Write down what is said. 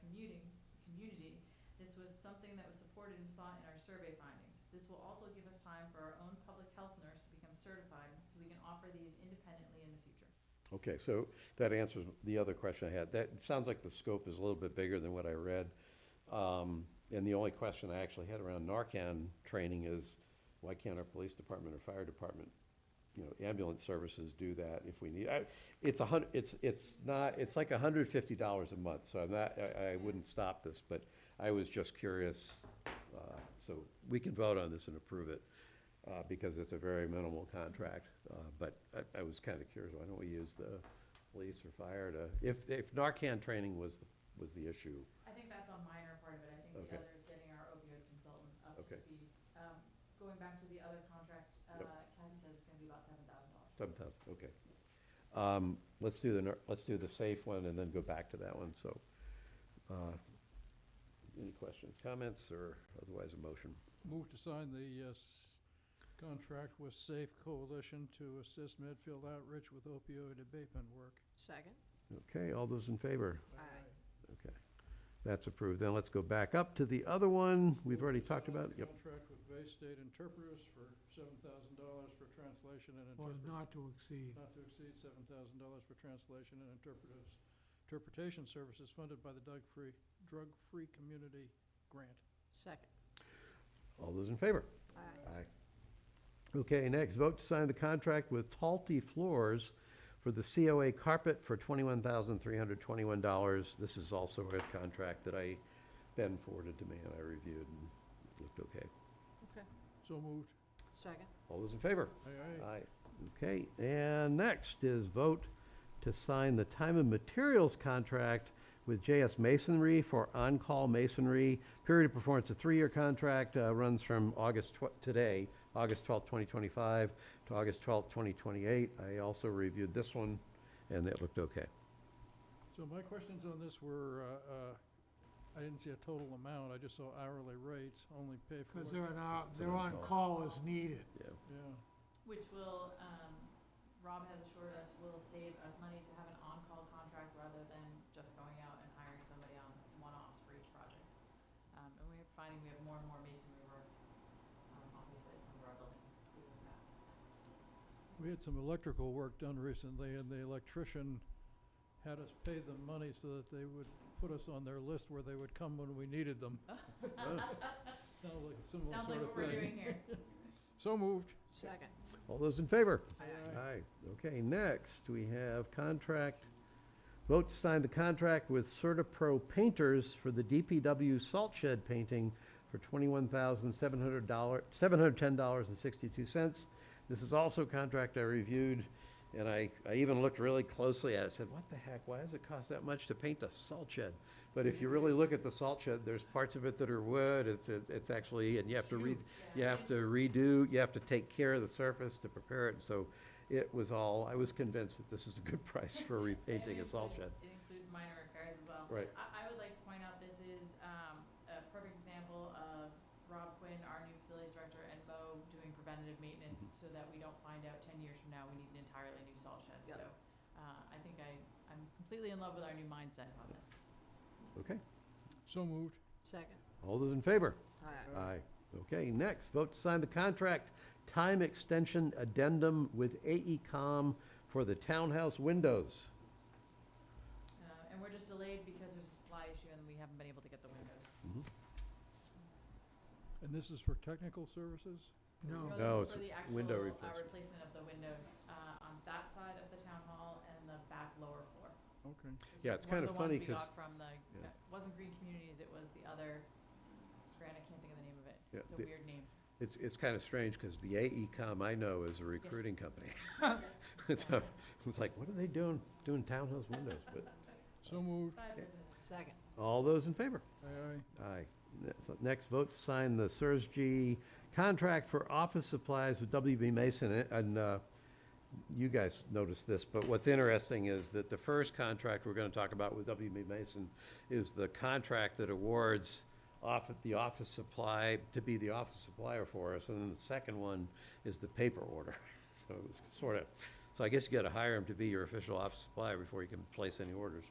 commuting, community. This was something that was supported and sought in our survey findings. This will also give us time for our own public health nurse to become certified, so we can offer these independently in the future. Okay, so that answers the other question I had. That, it sounds like the scope is a little bit bigger than what I read. Um, And the only question I actually had around Narcan training is, why can't our police department or fire department, you know, ambulance services do that if we need? I- It's a hun, it's, it's not, it's like hundred fifty dollars a month, so I'm not, I, I wouldn't stop this, but I was just curious. uh, So we can vote on this and approve it, uh, because it's a very minimal contract. uh, But I, I was kind of curious, why don't we use the police or fire to, if, if Narcan training was, the- was the issue, I think that's on minor part of it, I think the Okay. other is getting our opioid consultant up to Okay. speed. Um, going back to the other contract, uh, Yep. Kathy said it's gonna be about seven thousand dollars. Seven thousand, okay. Um, let's do the, ner- let's do the safe one and then go back to that one, so. uh, Any questions, comments, or otherwise a motion? Move to sign the uh, s- contract with Safe Coalition to assist Medfield Outreach with opioid abatement work. Second. Okay, all those in favor? Aye. Okay, that's approved. Then let's go back up to the other one. We've Move already to talked sign about, the yep, Contract with Bay State Interpreters for seven thousand dollars for translation and Or interpret. not to exceed. Not to exceed seven thousand dollars for translation and interpreters, interpretation services funded by the Doug Free, Drug Free Community Grant. Second. all those in favor? Aye. Aye. Okay, next, vote to sign the contract with Talty Floors for the COA carpet for twenty-one thousand three hundred twenty-one dollars. This is also a contract that I, Ben forwarded to me and I reviewed and it looked okay. Okay. So moved. Second. All those in favor? Aye, aye. Aye. Okay, and next is vote to sign the time and materials contract with JS Masonry for on-call masonry. Period of performance, a three-year contract, uh, runs from August tw- today, August twelfth, twenty twenty-five to August twelfth, twenty twenty-eight. I also reviewed this one and it looked okay. So my questions on this were, uh, uh, I didn't see a total amount, I just saw hourly rates, only pay for Because what. they're on, our- It's an they're on call as needed. Yeah. Which will, um, Rob has assured us will save us money to have an on-call contract rather than just going out and hiring somebody on one-offs for each project. Um, and we're finding we have more and more masonry work, um, obviously at some of our buildings, we do that. We had some electrical work done recently, and the electrician had us pay them money so that they would put us on their list where they would come when we needed them. Sounds like a similar Sounds like sort what of we're thing. doing here. So moved. Second. All those in favor? Aye. Aye. Okay, next, we have contract, vote to sign the contract with Certapro Painters for the DPW salt shed painting for twenty-one thousand seven hundred dollar, seven hundred ten dollars and sixty-two cents. This is also a contract I reviewed, and I, I even looked really closely at it, said, what the heck, why does it cost that much to paint a salt shed? But if you really look at the salt shed, there's parts of it that are wood, it's, it's actually, and you have to read, you have to redo, you have to take care of the surface to prepare it, so it was all, I was convinced that this is a good price for repainting a salt shed. It includes minor repairs as well. Right. I, I would like to point out, this is, um, a perfect example of Rob Quinn, our new facilities director, and Mo doing preventative maintenance so that we don't find out ten years from now we need an entirely new salt shed, Yep. so. Uh, I think I, I'm completely in love with our new mindset on this. Okay, So moved. Second. all those in favor? Uh, Aye. Aye. Okay, next, vote to sign the contract time extension addendum with AECom for the townhouse windows. Uh, and we're just delayed because there's a supply issue and we haven't been able to get the windows. Mm-hmm. And this is for technical services? No, No, this is for it's the window actual, uh, replacement. replacement of the windows, uh, on that side of the town hall and the back lower floor. Okay. This Yeah, was it's one kinda the funny ones we 'cause- got From the, Yeah. it wasn't Green Communities, it was the other, Grant, I can't think of the name of it. Yeah, It's a the- weird name. It's, it's kind of strange, because the AECom I know is a recruiting company. So, it's like, what are they doing, doing townhouse windows? But, So moved. Side Okay. business. Second. all those in favor? Aye, aye. Aye. Ne- Next, vote to sign the Sursg contract for office supplies with WB Mason, and- and uh, you guys noticed this, but what's interesting is that the first contract we're going to talk about with WB Mason is the contract that awards off, the office supply, to be the office supplier for us, and then the second one is the paper order. So it was sort of, so I guess you got to hire him to be your official office supplier before you can place any orders.